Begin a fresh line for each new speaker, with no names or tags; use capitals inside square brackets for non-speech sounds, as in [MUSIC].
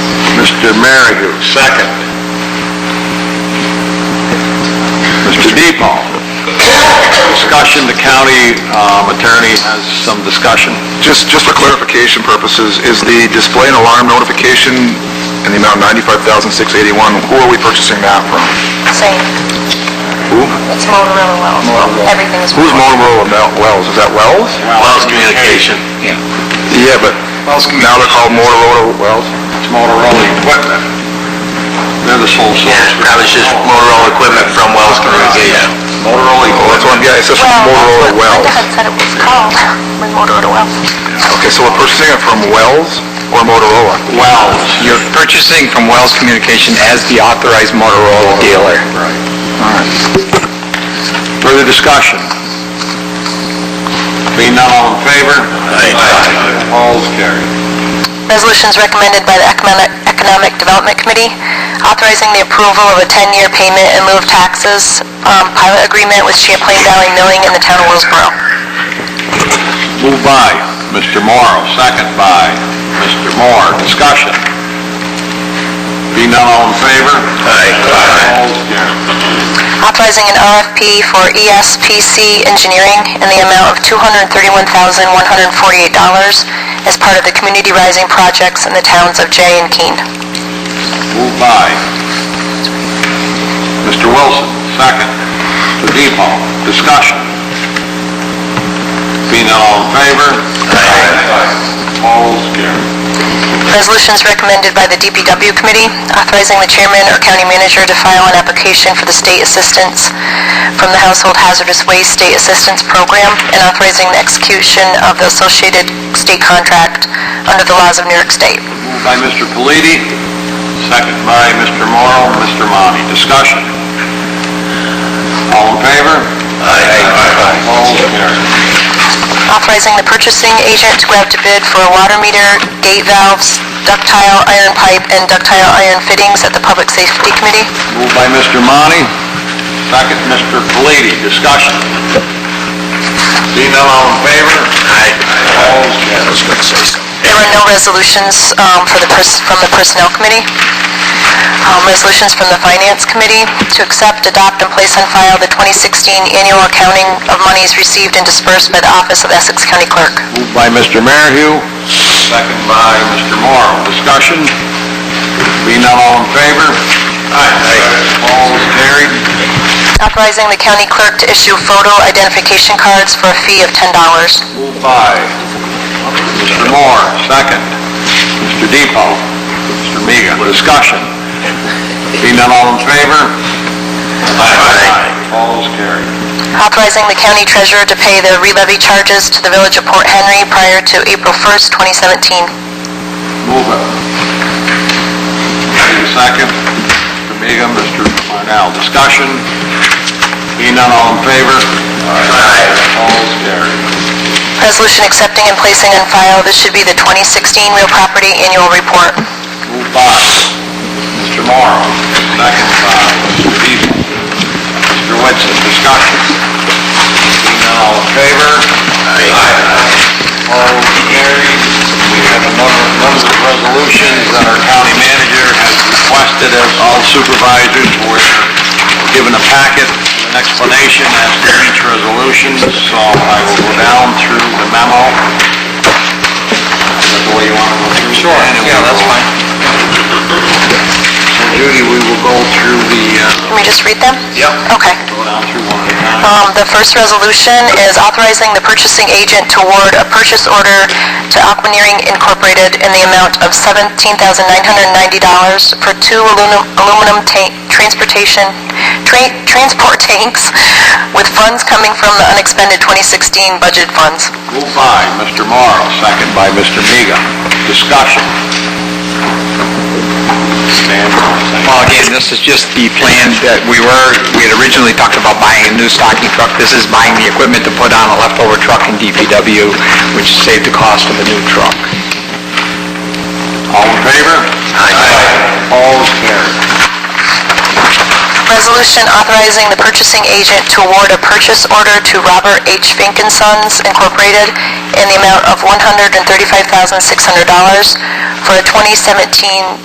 Mr. Merryle, second. Mr. DePaul. Discussion, the county um, attorney has some discussion.
Just, just for clarification purposes, is the display and alarm notification in the amount ninety-five thousand six eighty-one, who are we purchasing that from?
Same.
Who?
It's Motorola Wells. Everything is
Who's Motorola Mel- Wells? Is that Wells?
Wells Communication.
Yeah, but now they're called Motorola Wells?
It's Motorola equipment. They're the sole source. That was just Motorola equipment from Wells Communication. Motorola
Oh, that's what I'm getting, it says from
Well,
Motorola
that's what Linda
Wells.
had said it was called, was Motorola Wells.
Okay, so we're purchasing it from Wells or Motorola?
Wells.
You're purchasing from Wells Communication as the authorized Motorola dealer.
Further discussion? Being none, all in favor? Aye. Opposed, carried.
Resolutions recommended by the Economic- Economic Development Committee authorizing the approval of a 10-year payment in lieu of taxes um, pilot agreement with Champlain Valley Milling in the town of Willsboro.
Moved by Mr. Morrow, second by Mr. Moore. Discussion? Being none, all in favor? Aye. Opposed, carried.
Authorizing an RFP for E ESPC Engineering in the amount of $231,148 as part of the community rising projects in the towns of Jay and Keene.
Moved by Mr. Wilson, second. Mr. Depot, discussion. Being none, all in favor? Aye. Opposed, carried.
Resolutions recommended by the DPW Committee authorizing the chairman or county manager to file an application for the state assistance from the Household Hazardous Waste State Assistance Program and authorizing the execution of the associated state contract under the laws of New York State.
Moved by Mr. Palladie, second by Mr. Morrow, Mr. Monti. Discussion. All in favor? Aye. All carried.
authorizing the purchasing agent to go out to bid for a water meter, gate valves, ductile iron pipe, and ductile iron fittings at the Public Safety Committee.
Moved by Mr. Monti, second Mr. Palladie. Discussion. Seeing none, all in favor? Aye. All carried.
There were no resolutions um, for the, pers- from the Personnel Committee. Um, Resolutions from the Finance Committee to accept, adopt, and place on file the 2016 annual accounting of monies received and dispersed by the Office of Essex County Clerk.
Moved by Mr. Merhew, second by Mr. Morrow. Discussion. Being none, all in favor? Aye. All carried.
Authorizing the county clerk to issue photo identification cards for a fee of $10.
Moved by Mr. Moore, second. Mr. Depot, Mr. Miga, discussion. Being none, all in favor? Aye. All is carried.
authorizing the county treasurer to pay the re-levy charges to the village of Port Henry prior to April 1st, 2017.
Move it. Need a second. Mr. Miga, Mr. Marnell, discussion. Being none, all in favor? Aye. All is carried.
Resolution accepting and placing on file, this should be the 2016 real property annual report.
Moved by Mr. Morrow, second by Mr. Beaver. Mr. Whitson, discussion. Seeing none, all in favor? Aye. All carried. We have a number number of resolutions that our county manager has requested of all supervisors. We're given a packet, an explanation as to each resolution, so I will go down through the memo. Is that the way you want to go through? Sure, yeah, that's fine. So Judy, we will go through the, uh,
Can we just read them?
Yep.
Okay.
go down through one at a time.
Um, The first resolution is authorizing the purchasing agent to award a purchase order to Aquaneering Incorporated in the amount of $17,990 for two aluminum aluminum ta- transportation, tra- transport [LAUGHS] tanks with funds coming from the unexpended 2016 budget funds.
Moved by Mr. Morrow, second by Mr. Miga. Discussion. Stand for a second.
Well, again, this is just the plan that we were, we had originally talked about buying a new stocking truck. This is buying the equipment to put on a leftover truck in DPW, which saved the cost of a new truck.
All in favor? Aye. All is carried.
Resolution authorizing the purchasing agent to award a purchase order to Robert H. Fink and Sons Incorporated in the amount of $135,600 for a 2017